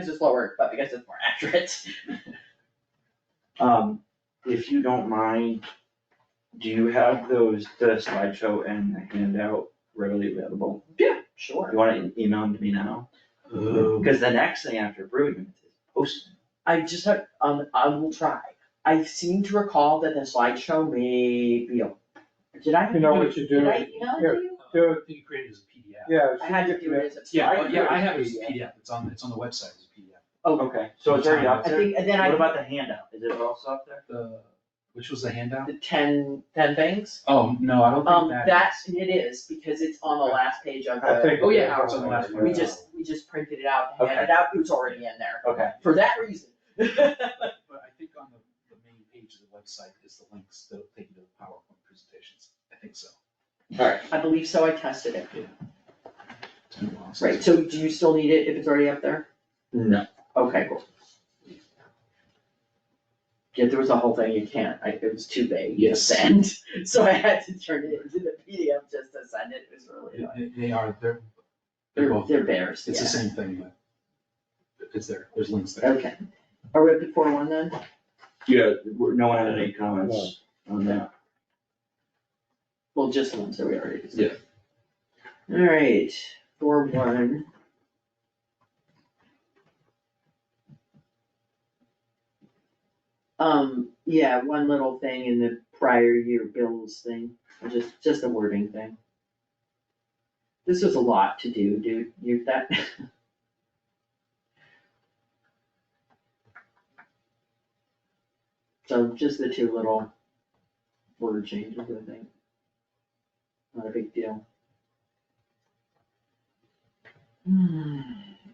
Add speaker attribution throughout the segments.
Speaker 1: because it's lower, but because it's more accurate.
Speaker 2: Um, if you don't mind, do you have those, the slideshow and the handout readily available?
Speaker 1: Yeah, sure.
Speaker 2: You wanna email them to me now? Cause the next thing after brewing is posting.
Speaker 1: I just have, um, I will try. I seem to recall that the slideshow may be, a- did I?
Speaker 3: You know what you
Speaker 1: Did
Speaker 3: do,
Speaker 1: I email it to you?
Speaker 3: do, it-
Speaker 4: You created as a PDF.
Speaker 3: yeah.
Speaker 1: I had to do it as a slideshow.
Speaker 4: Yeah, oh, yeah, I have it as a PDF, it's on, it's on the website as a PDF.
Speaker 2: Okay, so it's already up
Speaker 1: I
Speaker 2: there?
Speaker 1: think, and then
Speaker 2: What
Speaker 1: I,
Speaker 2: about the handout? Is it also up there?
Speaker 4: The, which was the handout?
Speaker 1: the ten, ten things,
Speaker 4: Oh, no, I don't
Speaker 1: um,
Speaker 4: think that
Speaker 1: that's, it is, because it's on the last page of
Speaker 3: I
Speaker 1: the,
Speaker 3: think-
Speaker 4: Oh, yeah, it's on the last
Speaker 1: we
Speaker 4: page.
Speaker 1: just, we just printed it out, handed it
Speaker 2: Okay.
Speaker 1: out, it was already in there,
Speaker 2: Okay,
Speaker 1: for that reason.
Speaker 4: is. But I think on the, the main page of the website is the links that'll take you to the PowerPoint presentations, I think so.
Speaker 2: alright,
Speaker 1: I believe so, I tested it.
Speaker 4: It's been a while since-
Speaker 1: Right, so do you still need it if it's already up there?
Speaker 2: no,
Speaker 1: Okay, cool. Yeah, there was a whole thing you can't, I, it was too vague to
Speaker 4: Yes.
Speaker 1: send, so I had to turn it into the PDF just to send it, it was really annoying.
Speaker 4: They- They are, they're, they're
Speaker 1: They're,
Speaker 4: both,
Speaker 1: they're bears,
Speaker 4: it's the
Speaker 1: yeah,
Speaker 4: same thing, but it's there, there's links there.
Speaker 1: okay. Are we up to four one then?
Speaker 2: yeah, we're- no one had any comments on that.
Speaker 1: Well, just one, so we already.
Speaker 2: Yeah.
Speaker 1: Alright, four one. Um, yeah, one little thing in the prior year bills thing, or just, just a wording thing. This was a lot to do, dude, you, that. So just the two little word changes, I think. Not a big deal. Hmm,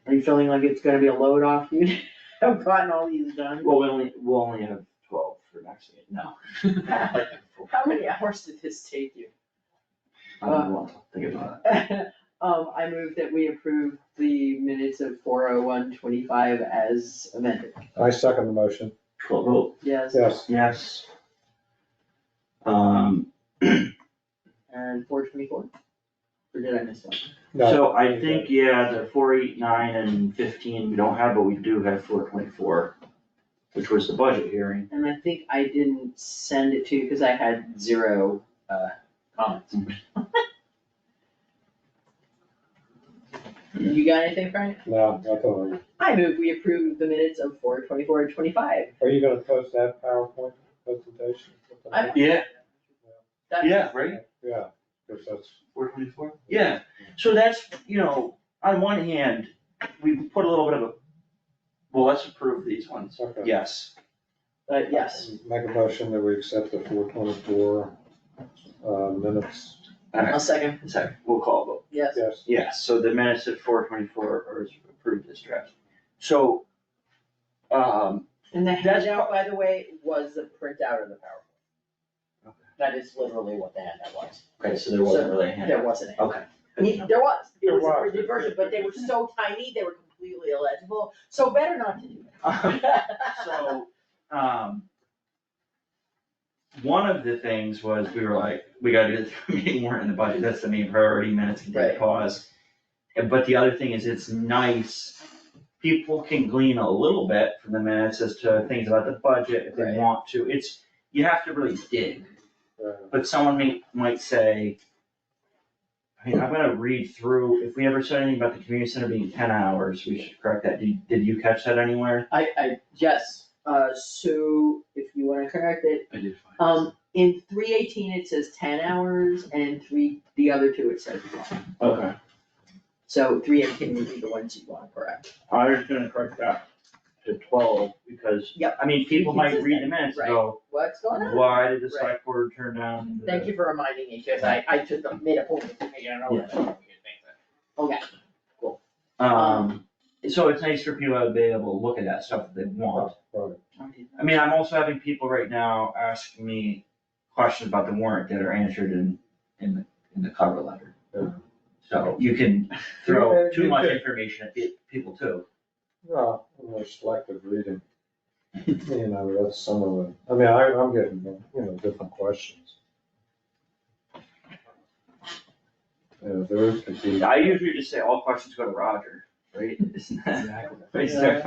Speaker 1: Are you feeling like it's gonna be a load off you? I've gotten all these done.
Speaker 2: Well, we only, we'll only have twelve for next year, no.
Speaker 1: How many hours did this take you?
Speaker 2: I don't want to think about
Speaker 1: Um, I move that we approve the minutes of four oh one twenty-five as amended.
Speaker 3: I second the motion,
Speaker 2: it. Cool, cool.
Speaker 1: Yes,
Speaker 3: yes,
Speaker 2: Yes. Um,
Speaker 1: and four twenty-four? Or did I miss one?
Speaker 3: no,
Speaker 2: so I think, yeah, the four eight nine and fifteen we don't have, but we do have four twenty four, which was the budget hearing.
Speaker 1: And I think I didn't send it to you because I had zero, uh, comments. You got anything, Frank?
Speaker 3: no, not the one.
Speaker 1: I move we approve the minutes of four twenty-four and twenty-five.
Speaker 3: Are you gonna post that PowerPoint presentation?
Speaker 1: I-
Speaker 2: Yeah,
Speaker 1: That-
Speaker 2: right,
Speaker 3: Yeah, because that's,
Speaker 2: four twenty four? Yeah, so that's, you know, on one hand, we put a little bit of a, well, let's approve these ones,
Speaker 3: okay.
Speaker 2: yes.
Speaker 1: Uh, yes,
Speaker 3: Make a motion that we accept the four twenty-four, uh, minutes,
Speaker 1: I'll second,
Speaker 2: Sorry, we'll call a vote.
Speaker 1: yes.
Speaker 3: yes.
Speaker 2: Yes, so the minutes at four twenty-four are approved as draft. So, um,
Speaker 1: And the
Speaker 2: That's-
Speaker 1: handout, by the way, was the printout of the PowerPoint. That is literally what the handout was.
Speaker 2: okay, so there wasn't really a
Speaker 1: There
Speaker 2: handout.
Speaker 1: wasn't any.
Speaker 2: Okay.
Speaker 1: I mean, there was, it
Speaker 3: There
Speaker 1: was a
Speaker 3: was.
Speaker 1: printed version, but they were so tiny, they were completely illegible, so better not to do
Speaker 2: Um,
Speaker 1: that.
Speaker 2: So, um, one of the things was we were like, we gotta get the meeting warrant and the budget, that's the main priority, minutes can
Speaker 1: Right.
Speaker 2: take pause. And- But the other thing is, it's nice, people can glean a little bit from the minutes as to things about the budget if they
Speaker 1: Right.
Speaker 2: want to. It's, you have to really dig.
Speaker 3: Uh,
Speaker 2: But someone may, might say, I mean, I'm gonna read through, if we ever said anything about the community center being ten hours, we should correct that. Did, did you catch that anywhere?
Speaker 1: I, I, yes, uh, so if you wanna correct it,
Speaker 4: I did find. it.
Speaker 1: um, in three eighteen, it says ten hours, and in three, the other two, it says one.
Speaker 2: Okay.
Speaker 1: So three eighteen would be the ones you wanna correct.
Speaker 2: I was gonna correct that to twelve, because,
Speaker 1: Yep.
Speaker 2: I mean, people might read the minutes and go,
Speaker 1: What's going on? Mm-hmm.
Speaker 2: why did the select board turn down? the-"
Speaker 1: Thank you for reminding me, cause I, I took the, made a point of thinking, I don't know what the fuck we could think of. Okay,
Speaker 2: Um, so it's nice for people to be able to look at that stuff if they want.
Speaker 3: right.
Speaker 2: I mean, I'm also having people right now ask me questions about the warrant that are answered in, in the, in the cover letter.
Speaker 1: Uh-huh.
Speaker 3: Yeah.
Speaker 2: So you can throw
Speaker 3: Yeah,
Speaker 2: too
Speaker 3: you
Speaker 2: much
Speaker 3: could.
Speaker 2: information at pe- people too.
Speaker 3: No, more selective reading, you know, that's some of it, I mean, I, I'm getting, you know, different questions. Uh, Yeah, there could be.
Speaker 2: I usually just say all questions go to Roger.
Speaker 4: right? Isn't that
Speaker 5: Exactly.
Speaker 4: what he's
Speaker 2: Yeah.
Speaker 4: talking